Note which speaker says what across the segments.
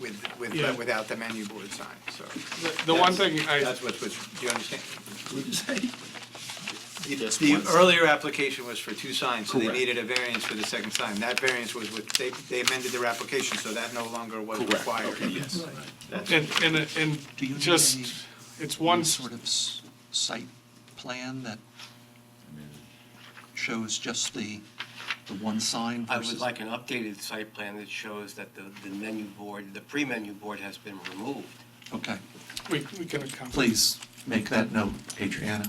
Speaker 1: with, with,
Speaker 2: Yeah.
Speaker 1: without the menu board sign, so.
Speaker 2: The- The one thing I,
Speaker 1: That's what's, what's, do you understand?
Speaker 3: What'd you say?
Speaker 1: The-
Speaker 3: Just
Speaker 1: The
Speaker 3: one sign.
Speaker 1: earlier application was for two signs, so they
Speaker 3: Correct.
Speaker 1: needed a variance for the second sign. That variance was with, they, they amended their application, so that no longer was
Speaker 3: Correct,
Speaker 1: required.
Speaker 3: okay, yes.
Speaker 2: and, and,
Speaker 4: Do you
Speaker 2: and
Speaker 4: need
Speaker 2: just,
Speaker 4: any-
Speaker 2: it's
Speaker 4: one
Speaker 2: one,
Speaker 4: sort of s- site plan that shows just the, the one sign
Speaker 5: I
Speaker 4: versus?
Speaker 5: would like an updated site plan that shows that the, the menu board, the pre-menu board has been removed.
Speaker 4: Okay,
Speaker 2: we we can accomplish.
Speaker 4: please make that note, Adriana.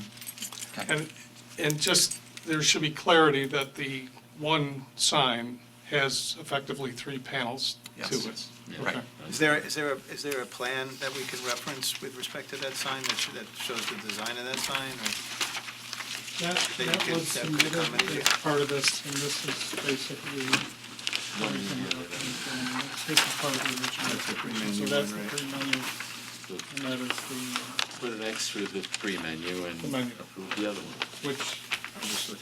Speaker 4: Okay.
Speaker 2: And, and just, there should be clarity that the one sign has effectively three panels to
Speaker 4: Yes.
Speaker 2: it.
Speaker 4: Right.
Speaker 2: Okay.
Speaker 1: Is there, is there, a- is there a plan that we can reference with respect to that sign that, sh- that shows the design of that sign? or-
Speaker 6: That,
Speaker 1: They
Speaker 6: that
Speaker 1: could-
Speaker 6: was
Speaker 1: that could
Speaker 6: submitted
Speaker 1: accommodate
Speaker 6: as
Speaker 1: it.
Speaker 6: part of this, and this is basically. This is part of the
Speaker 1: That's the
Speaker 6: original.
Speaker 1: pre-menu
Speaker 6: So that's the
Speaker 1: one, right?
Speaker 6: pre-menu, and that is the,
Speaker 7: Put it next to the free menu and
Speaker 2: The menu.
Speaker 7: approve the other one.
Speaker 2: Which,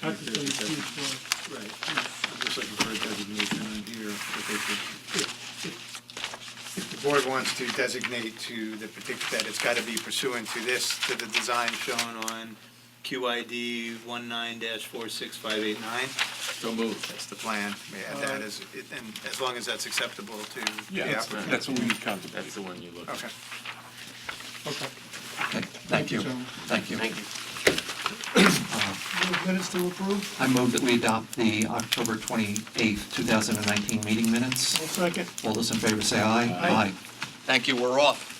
Speaker 6: technically, huge one.
Speaker 1: Right, I'm just looking for a designation on here, that they could, if the board wants to designate to the particular, that it's gotta be pursuant to this, to the design shown on QID one four six five eight nine,
Speaker 7: So moved.
Speaker 1: that's the plan, yeah, that is, it- and as long as that's acceptable to the
Speaker 7: that's
Speaker 1: applicant.
Speaker 7: what we contemplated. That's the one you look at.
Speaker 1: Okay.
Speaker 2: okay.
Speaker 4: Okay, thank you,
Speaker 2: gentlemen.
Speaker 4: thank you.
Speaker 5: Thank you.
Speaker 6: Minutes to approve,
Speaker 4: I move that we adopt the October 28th, 2019 meeting minutes.
Speaker 6: I'll second.
Speaker 4: All those in favor say aye.
Speaker 6: Aye.
Speaker 4: Thank you, we're off.